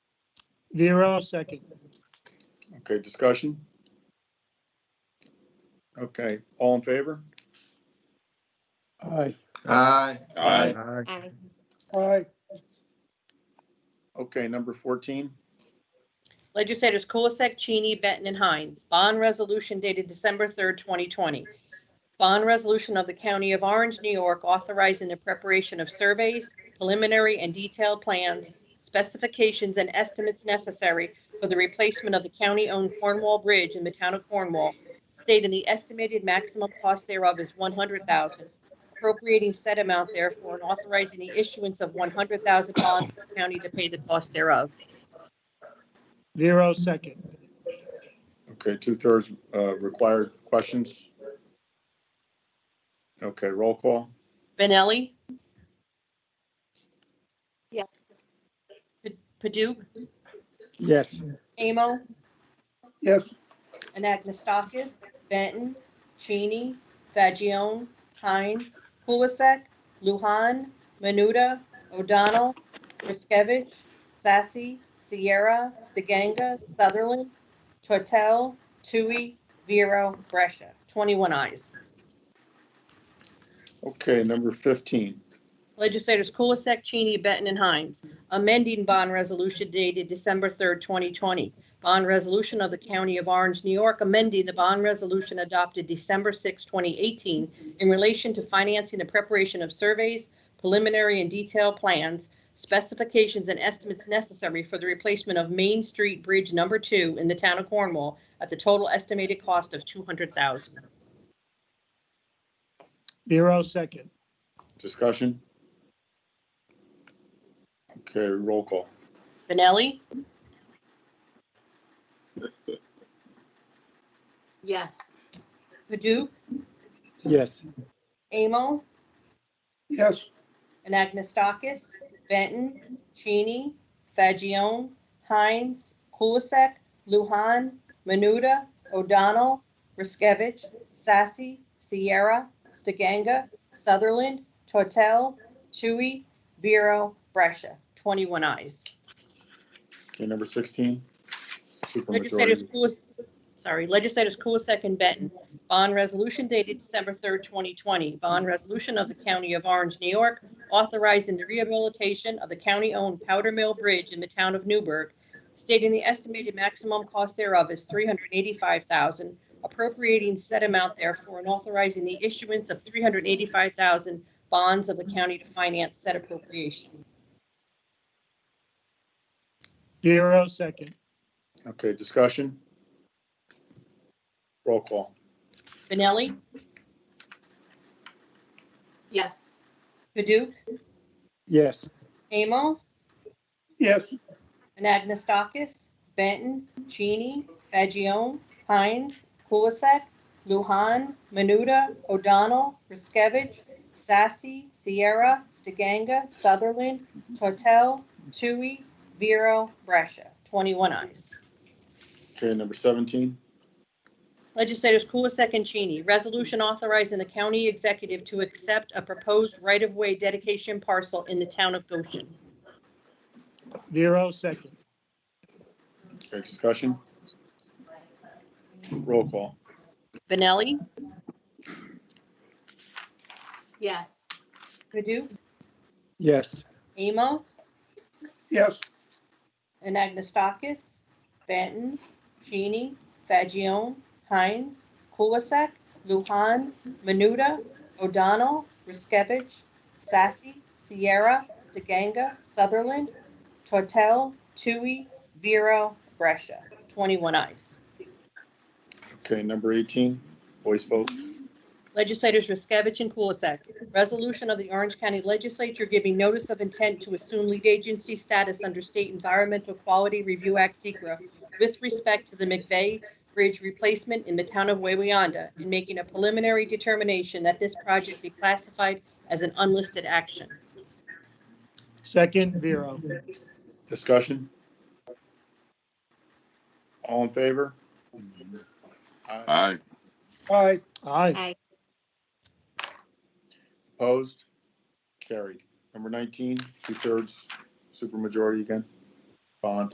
Vero, second. Okay, discussion? Okay, all in favor? Aye. Aye. Aye. Aye. Aye. Aye. Okay, number 14, Legislators Kulisek, Cheney, Benton, and Hines. Bond resolution dated December 3rd, 2020. Bond resolution of the County of Orange, New York, authorizing the preparation of surveys, preliminary and detailed plans, specifications, and estimates necessary for the replacement of the county-owned Cornwall Bridge in the town of Cornwall, stating the estimated maximum cost thereof is 100000 appropriating said amount therefore and authorizing the issuance of 100000 bonds for the county to pay the cost thereof. Vero, second. okay, two-thirds uh, required questions? Okay, roll call? Benelli? Yes. Pa- Paduk, Yes. Amo, Yes. Anagnestakis, Benton, Cheney, Fagion, Hines, Kulisek, Luhan, Menuda, O'Donnell, Riskevich, Sassy, Sierra, DeGanga, Sutherland, Tortel, Tui, Vero, Brescia. 21 eyes. Okay, number 15, Legislators Kulisek, Cheney, Benton, and Hines, amending bond resolution dated December 3rd, 2020. Bond resolution of the County of Orange, New York, amending the bond resolution adopted December 6, 2018, in relation to financing the preparation of surveys, preliminary and detailed plans, specifications, and estimates necessary for the replacement of Main Street Bridge Number 2 in the town of Cornwall at the total estimated cost of $200,000. Vero, second. discussion? Okay, roll call? Benelli? Yes. Padu? Yes. Amo? Yes. Anagnestakis, Benton, Cheney, Fagion, Hines, Kulisek, Luhan, Menuda, O'Donnell, Riskevich, Sassy, Sierra, Stiganga, Sutherland, Tortel, Tui, Vero, Brescia. 21 eyes. Okay, number 16? Legislators Supermajority. Kulis, sorry, legislators Kulisek and Benton. Bond resolution dated December 3rd, 2020. Bond resolution of the County of Orange, New York, authorizing the rehabilitation of the county-owned Powder Mill Bridge in the town of Newburgh, stating the estimated maximum cost thereof is 385000 appropriating said amount therefore and authorizing the issuance of 385000 bonds of the county to finance said appropriation. Vero, second. Okay, discussion? Roll call? Benelli? Yes. Paduk? Yes. Amo? Yes. Anagnestakis, Benton, Cheney, Fagion, Hines, Kulisek, Luhan, Menuda, O'Donnell, Riskevich, Sassy, Sierra, Stiganga, Sutherland, Tortel, Tui, Vero, Brescia. 21 eyes. Okay, number 17? Legislators Kulisek and Cheney, resolution authorizing the county executive to accept a proposed right-of-way dedication parcel in the town of Goshen. Vero, second. Okay, discussion? Roll call? Benelli, Yes. Padu, Yes. Amo, Yes. Anagnestakis, Benton, Cheney, Fagion, Hines, Kulisek, Luhan, Menuda, O'Donnell, Riskevich, Sassy, Sierra, Stiganga, Sutherland, Tortel, Tui, Vero, Brescia. 21 eyes. Okay, number 18, voice vote. Legislators Riskevich and Kulisek. Resolution of the Orange County Legislature giving notice of intent to assume lead agency status under State Environmental Quality Review Act SECRA with respect to the McVeigh Bridge replacement in the town of Wayweyanda and making a preliminary determination that this project be classified as an unlisted action. Second, Vero. Discussion? All in favor? Aye. Aye, Aye. Aye. Opposed? Carried. Number 19, two-thirds supermajority again. Bond.